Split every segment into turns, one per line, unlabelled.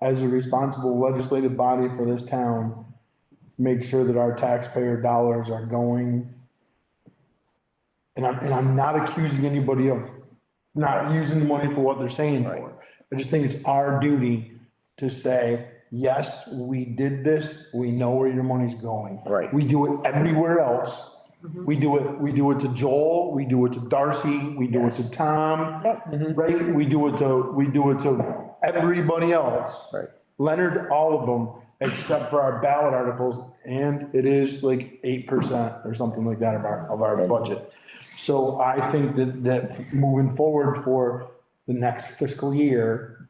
as a responsible legislative body for this town, make sure that our taxpayer dollars are going. And I'm, and I'm not accusing anybody of not using the money for what they're saying for. I just think it's our duty to say, yes, we did this, we know where your money's going.
Right.
We do it everywhere else. We do it, we do it to Joel, we do it to Darcy, we do it to Tom, right? We do it to, we do it to everybody else.
Right.
Leonard, all of them, except for our ballot articles, and it is like eight percent or something like that of our, of our budget. So I think that, that moving forward for the next fiscal year,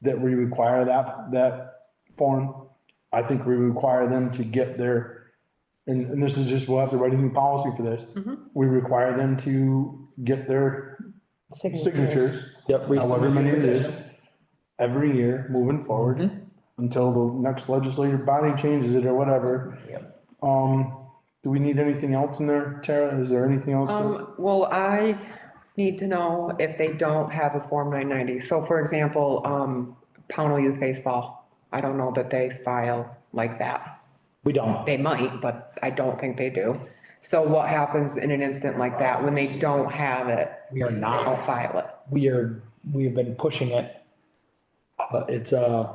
that we require that, that form. I think we require them to get their, and, and this is just, we'll have to write a new policy for this.
Mm-hmm.
We require them to get their signatures.
Yep, we
However many it
submit the
is, every year moving
Mm-hmm.
forward, until the next legislative body changes it or whatever.
Yep.
Um, do we need anything else in there, Tara? Is there anything else? that-
Um, well, I need to know if they don't have a Form nine ninety. So for example, um, Pownell Youth Baseball, I don't know that they file like that.
We don't.
They might, but I don't think they do. So what happens in an instant like that when they don't have it?
We are
They
not.
Don't file it.
We are, we have been pushing it. But it's, uh,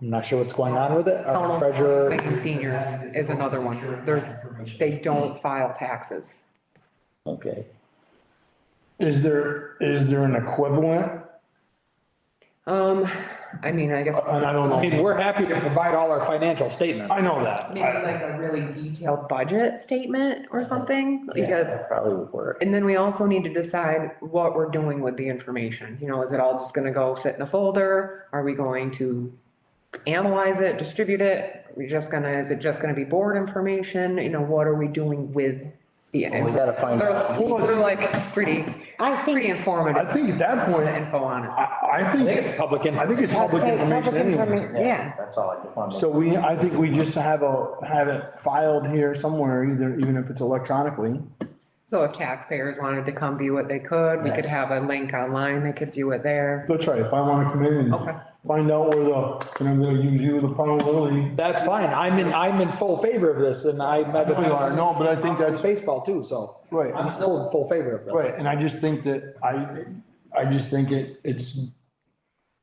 I'm not sure what's going on with it. Our
Pownell
treasurer,
Lincoln Seniors is another one. There's, they don't file taxes.
okay.
Is there, is there an equivalent?
Um, I mean, I guess.
And I don't
Uh, I mean,
know.
we're happy to provide all our financial statements.
I know that.
Maybe like a really detailed budget statement or something, like
Yeah,
a
that Probably would work.
And then we also need to decide what we're doing with the information. You know, is it all just gonna go sit in a folder? Are we going to analyze it, distribute it? Are we just gonna, is it just gonna be board information? You know, what are we doing with the?
we gotta find out.
They're they're like pretty,
I
pretty
think,
I
informative
think at that point,
info on it.
I, I
I
think,
think it's public
I
info.
think it's
I'd
public
say it's
information
public
anyway.
information, yeah.
That's all I could find.
So we, I think we just have a, have it filed here somewhere, either, even if it's electronically.
So if taxpayers wanted to come view it, they could. We could have a link online. They could view it there.
That's right, if I wanna come in
Okay.
and find out where the, and I'm gonna use you the probability.
That's fine. I'm in, I'm in full favor of this and I.
No, you are. No, but I think that's-
Baseball too, so.
Right.
I'm still in full favor of this.
Right, and I just think that, I, I just think it, it's,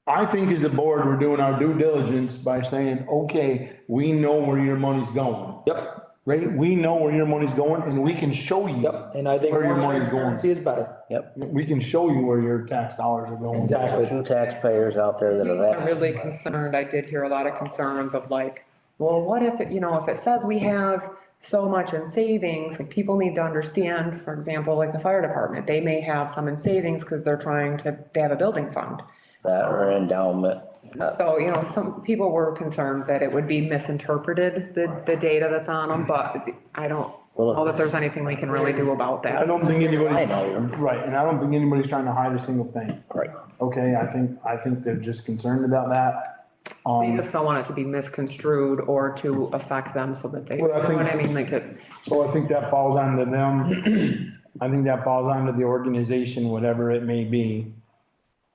I think as a board, we're doing our due diligence by saying, okay, we know where your money's going.
Yep,
Right, we know where your money's going and we can show you.
yep. And I think
Where your
more
money's going.
transparency is better.
Yep,
We can show you where your tax dollars are going.
there's a few taxpayers out there that have
I'm
asked,
really concerned, I did hear a lot of concerns of like, well, what if, it you know, if it says we have so much in savings, like people need to understand, for example, like the fire department, they may have some in savings because they're trying to, they have a building fund.
that or endowment. Uh,
So, you know, some people were concerned that it would be misinterpreted, the, the data that's on them, but I don't know that there's anything we can really do about
I
that.
don't think
Line
anybody,
item.
right, and I don't think anybody's trying to hide a single thing.
Right.
Okay, I think, I think they're just concerned about that.
They
Um,
just don't want it to be misconstrued or to affect them so that they, you
Well, I
know what
think-
I mean, like it.
so I think that falls onto them. I think that falls onto the organization, whatever it may be.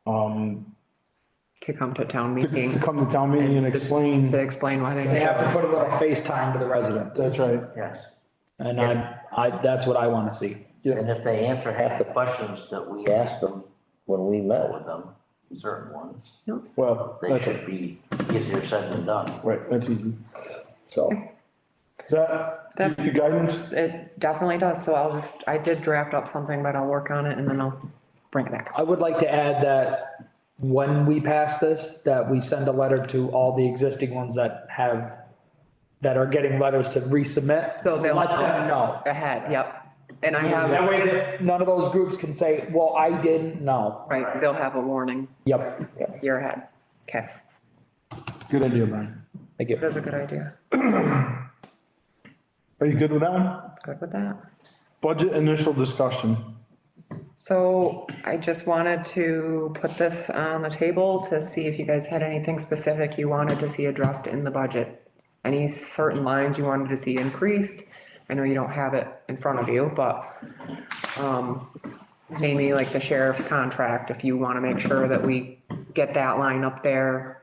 Um,
to come to town
to- to
meeting.
come to town meeting and
to-
explain,
To explain why they.
They have to put a little FaceTime to the residents.
that's right.
Yes,
And I, I, that's what I want to see.
and if they answer half the questions that we asked them when we met with them, certain ones,
Well,
they
that's,
should be easier said than done.
right, that's easy.
So.
Is that, give you guidance?
It definitely does, so I'll just, I did draft up something, but I'll work on it and then I'll bring it back.
I would like to add that when we pass this, that we send a letter to all the existing ones that have, that are getting letters to resubmit.
So they'll-
Let them know.
Ahead, yep, and I
That
have,
way that none of those groups can say, well, I didn't know.
right, they'll have a warning,
Yep,
year ahead, okay,
Good idea, Brian.
thank you.
that's a good idea,
Are you good with that one?
good with that.
Budget initial discussion.
So I just wanted to put this on the table to see if you guys had anything specific you wanted to see addressed in the budget. Any certain lines you wanted to see increased? I know you don't have it in front of you, but, um, maybe like the sheriff's contract, if you wanna make sure that we get that line up there